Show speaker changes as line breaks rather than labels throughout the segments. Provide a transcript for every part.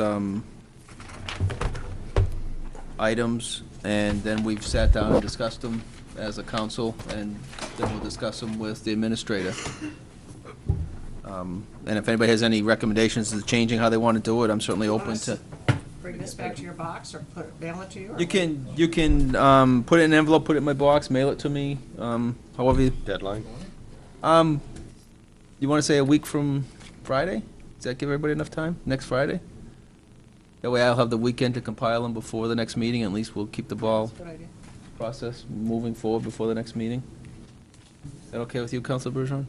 some items, and then we've sat down and discussed them as a council, and then we'll discuss them with the administrator. Um, And if anybody has any recommendations to changing how they want to do it, I'm certainly open to.
Bring this back to your box or put it, mail it to you? or
You can, you can um, put it in an envelope, put it in my box, mail it to me, um, however, you-
Deadline?
um, you want to say a week from Friday? Does that give everybody enough time, next Friday? That way I'll have the weekend to compile them before the next meeting, at least we'll keep the ball
That's a good idea.
process moving forward before the next meeting. Is that okay with you, Council Bergeron?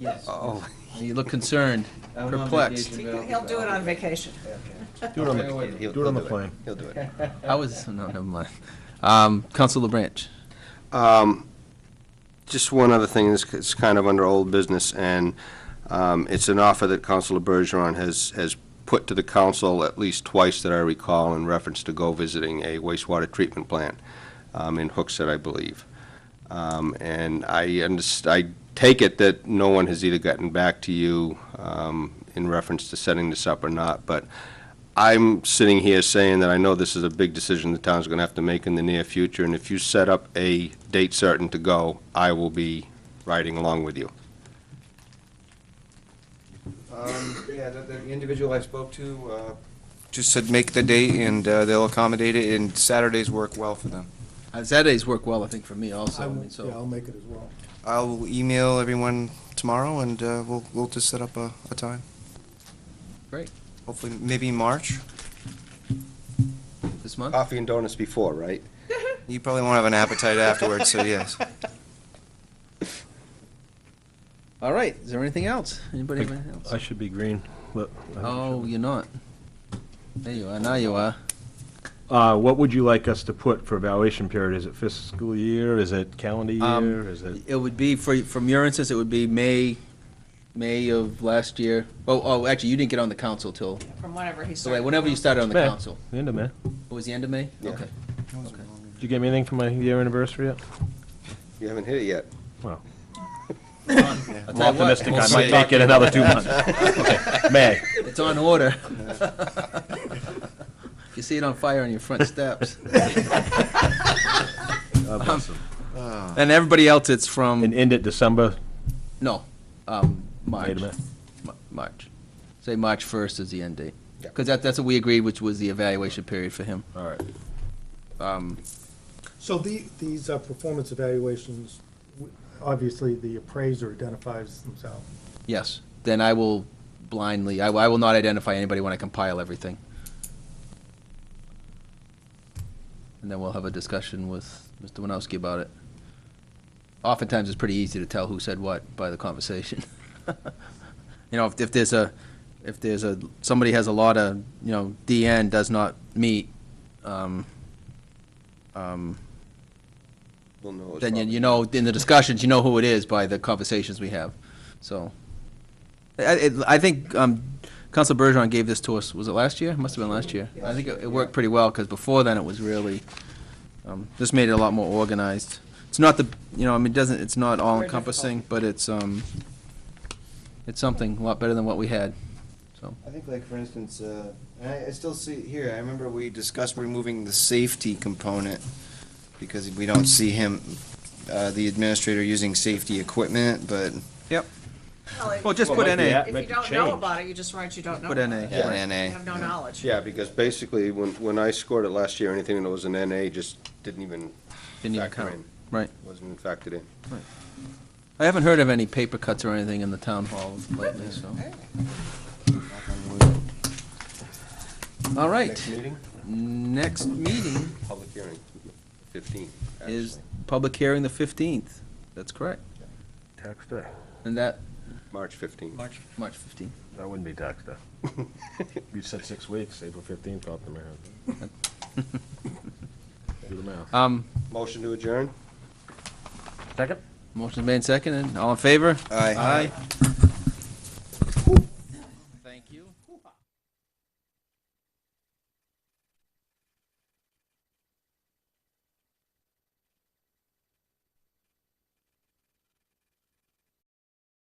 Yes.
Oh.
You look concerned,
I went on
perplexed.
vacation, but I'll be
He'll do it on
back.
vacation.
Do it on the, do it on the plane.
He'll do it.
I was, no, never mind. Um, Council LeBranch,
Um, Just one other thing, this is kind of under old business, and um, it's an offer that Counselor Bergeron has, has put to the council at least twice that I recall in reference to go visiting a wastewater treatment plant um, in Hooksett, I believe. Um, And I underst, I take it that no one has either gotten back to you um, in reference to setting this up or not, but I'm sitting here saying that I know this is a big decision the town's going to have to make in the near future, and if you set up a date certain to go, I will be riding along with you.
Um, Yeah, the, the individual I spoke to, uh, just said make the date and, uh, they'll accommodate it and Saturdays work well for them.
Uh, Saturdays work well, I think, for me also, I
I
mean,
will- Yeah, I'll
so.
make it as well.
I'll email everyone tomorrow and, uh, we'll, we'll just set up a, a time.
Great,
Hopefully, maybe March.
this month?
Coffee and donuts before, right?
You probably won't have an appetite afterwards, so yes.
All right, is there anything else? Anybody have anything
I
else?
should be green. Look, I
Oh, you're not. There you are, now you are.
should- Uh, what would you like us to put for evaluation period? Is it fiscal year? Is it calendar
Um,
year? Is it?
It would be, for, from your instance, it would be May, May of last year. Oh, oh, actually, you didn't get on the council till,
From whenever he
so wait,
started.
whenever you started on the
May.
council.
The End of May.
It was the end of May?
Yeah.
Okay.
Did you get me anything for my year anniversary yet?
You haven't hit it yet.
Well,
I'll
I'm
tell you what,
optimistic.
we'll
I
see.
might not get another two months. Okay, May.
It's on order. You see it on fire on your front steps.
God
Um,
bless them.
Ah.
And everybody else, it's
Uh, And
from,
end it December.
no, um, March.
Wait a minute.
Ma- March. Say March 1st is the end date.
Yeah.
Because that, that's what we agreed, which was the evaluation period for him.
All right.
Um,
So the.
These are performance evaluations, w- obviously, the appraiser identifies themselves.
Yes, then I will blindly, I, I will not identify anybody when I compile everything. And then we'll have a discussion with Mr. Winowski about it. Oftentimes, it's pretty easy to tell who said what by the conversation. You know, if, if there's a, if there's a, somebody has a lot of, you know, DN does not meet, um, um,
We'll know. it's
then you,
probably-
you know, in the discussions, you know who it is by the conversations we have, so. I, it- I think, um, Council Bergeron gave this to us, was it last year? Must've been last year. I think it, it worked pretty well, because before then, it was really, um, this made it a lot more organized. It's not the, you know, I mean, it doesn't, it's not all encompassing, but it's, um, it's something a lot better than what we had, so.
I think like, for instance, uh, and I, I still see, here, I remember we discussed removing the safety component because we don't see him, uh, the administrator using safety equipment, but
Well, just
Well,
put
like the
NA,
app-
If you
Make the
don't know
change.
about it, you just write you don't know.
put
about
NA.
it.
Yeah,
right.
NA.
You have no knowledge.
Yeah, because basically, when, when I scored it last year, anything that was an NA just didn't even
Didn't even
factor
count.
in.
Right.
Wasn't factored in.
I haven't heard of any paper cuts or anything in the town hall lately, so. All
Next
right,
meeting,
next meeting
public hearing, 15.
is
actually.
public hearing the 15th. That's correct.
Tax day.
And that,
March 15. March.
March 15th.
That wouldn't be tax day. You said six weeks, April fifteenth, off the man. Do the math.
Um,
Motion to adjourn?
Second?
motion's made second, and all in favor?
Aye.
Aye.